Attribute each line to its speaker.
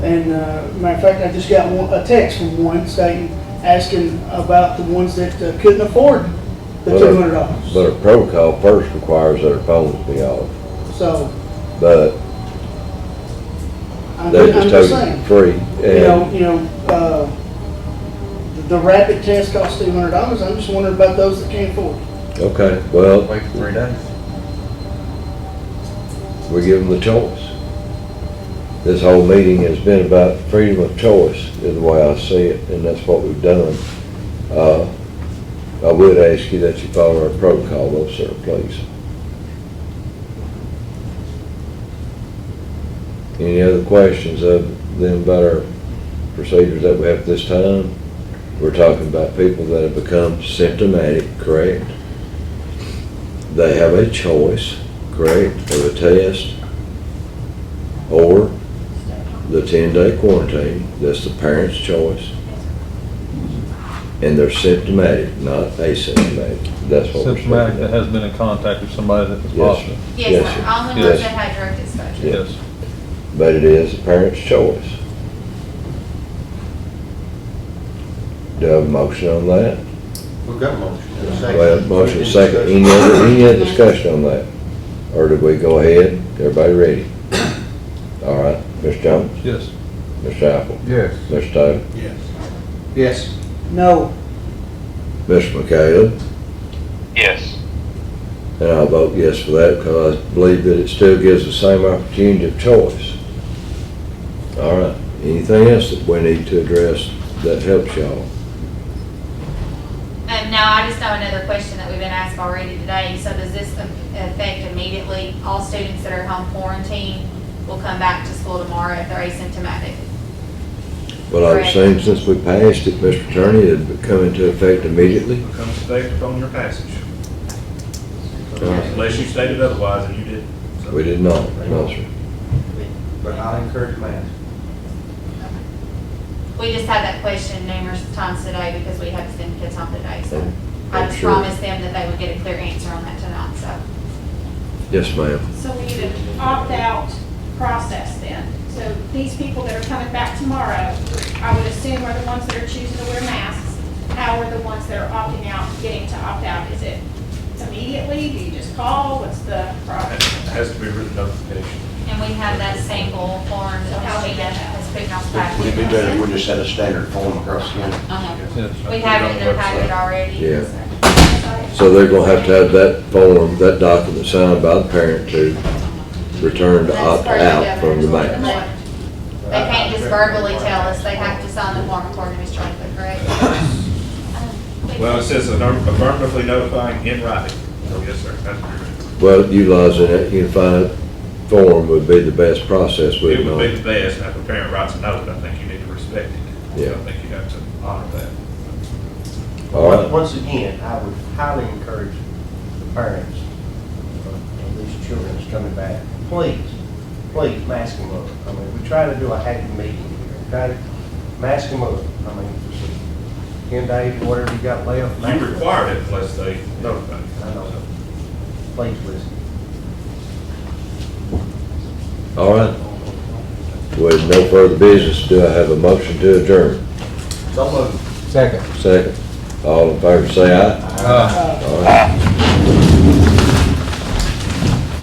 Speaker 1: And, uh, matter of fact, I just got one, a text from one stating, asking about the ones that uh, couldn't afford the
Speaker 2: Well,
Speaker 1: two hundred dollars.
Speaker 2: But a protocol first requires their phones be off,
Speaker 1: So,
Speaker 2: but
Speaker 1: I'm,
Speaker 2: they
Speaker 1: I'm
Speaker 2: just
Speaker 1: just
Speaker 2: told you
Speaker 1: saying,
Speaker 2: free.
Speaker 1: you know,
Speaker 2: And
Speaker 1: you know, uh, the- the rapid test costs two hundred dollars, I'm just wondering about those that can't afford. it.
Speaker 2: Okay, well,
Speaker 3: Wait for three days.
Speaker 2: we give them the choice. This whole meeting has been about freedom of choice, is the way I see it, and that's what we've done. Uh, I would ask you that you follow our protocol though, sir, please. Any other questions of them about our procedures that we have at this time? We're talking about people that have become symptomatic, correct? They have a choice, correct, of a test or the ten-day quarantine. That's the parent's choice. And they're symptomatic, not asymptomatic. That's what we're speaking
Speaker 4: Symptomatic that
Speaker 2: about.
Speaker 4: has been in contact with somebody that was
Speaker 2: Yes,
Speaker 4: positive.
Speaker 2: sir.
Speaker 5: Yes,
Speaker 2: Yes,
Speaker 5: sir.
Speaker 2: sir.
Speaker 5: only
Speaker 2: Yes.
Speaker 5: ones that had direct exposure.
Speaker 2: Yeah.
Speaker 4: Yes.
Speaker 2: But it is the parent's choice. Do I have a motion on that?
Speaker 3: We've got a motion. and a second.
Speaker 2: Well, motion
Speaker 3: Any
Speaker 2: second, any
Speaker 3: discussion?
Speaker 2: other, any other discussion on that? Or do we go ahead, everybody ready? All right, Ms. Jones,
Speaker 4: Yes.
Speaker 2: Ms. Apple,
Speaker 4: Yes.
Speaker 2: Ms. Taylor,
Speaker 3: Yes. Yes.
Speaker 1: No,
Speaker 2: Ms. McHale,
Speaker 6: Yes.
Speaker 2: and I'll vote yes for that because I believe that it still gives the same opportunity of choice. All right, anything else that we need to address that helps y'all?
Speaker 5: Um, no, I just know another question that we've been asked already today. So does this a- affect immediately all students that are home quarantined will come back to school tomorrow if they're asymptomatic?
Speaker 2: Well, I was
Speaker 5: Correct.
Speaker 2: saying, since we passed it, Mr. Attorney, it would come into effect immediately.
Speaker 7: becomes effective on your passage.
Speaker 2: Right.
Speaker 7: Unless you stated otherwise, and you didn't. so-
Speaker 2: We did not, no, sir.
Speaker 3: But I'll encourage mask.
Speaker 5: We just had that question numerous times today because we had to send kids home today. So
Speaker 2: I'm-
Speaker 5: I
Speaker 2: I'm
Speaker 5: just
Speaker 2: sure.
Speaker 5: promised them that they would get a clear answer on that tonight, so.
Speaker 2: Yes, ma'am.
Speaker 8: So we need an opt-out process then. So these people that are coming back tomorrow, I would assume are the ones that are choosing to wear masks. How are the ones that are opting out getting to opt out? Is it immediately? Do you just call? What's the
Speaker 7: It
Speaker 8: process?
Speaker 7: has to be written notification.
Speaker 5: And we have that sample form
Speaker 8: So
Speaker 5: that
Speaker 8: how
Speaker 5: she
Speaker 8: we get that?
Speaker 5: has put on the
Speaker 9: Would it be
Speaker 5: packet.
Speaker 9: better if we just had a standard form across the end?
Speaker 5: Uh-huh.
Speaker 4: Yes.
Speaker 5: We have it in the packet already.
Speaker 2: Yeah.
Speaker 5: so.
Speaker 2: So they're gonna have to have that form, that document signed by the parent to return to opt out from the mask.
Speaker 5: They can't just verbally tell us, they have to sign the form according to Ms. Johnson, correct?
Speaker 7: Well, it says affirm- affirmatively notifying in writing. So yes, sir, that's correct.
Speaker 2: Well, utilizing that unified form would be the best process,
Speaker 7: It
Speaker 2: wouldn't
Speaker 7: would be
Speaker 2: it?
Speaker 7: the best, and if a parent writes a note, I think you need to respect it.
Speaker 2: Yeah.
Speaker 7: I think you have to honor that.
Speaker 2: All right.
Speaker 9: Once again, I would highly encourage the parents of these children that's coming back, please, please, mask them up. I mean, we try to do a happy meeting here, okay? Mask them up. I mean, ten days, whatever you got left. mask
Speaker 7: You
Speaker 9: 'em up.
Speaker 7: require it unless they notify you.
Speaker 9: I know. Please listen.
Speaker 2: All right. With no further business, do I have a motion to adjourn?
Speaker 9: So moved.
Speaker 4: Second.
Speaker 2: Second. All in favor, say aye.
Speaker 1: uh,
Speaker 2: All right.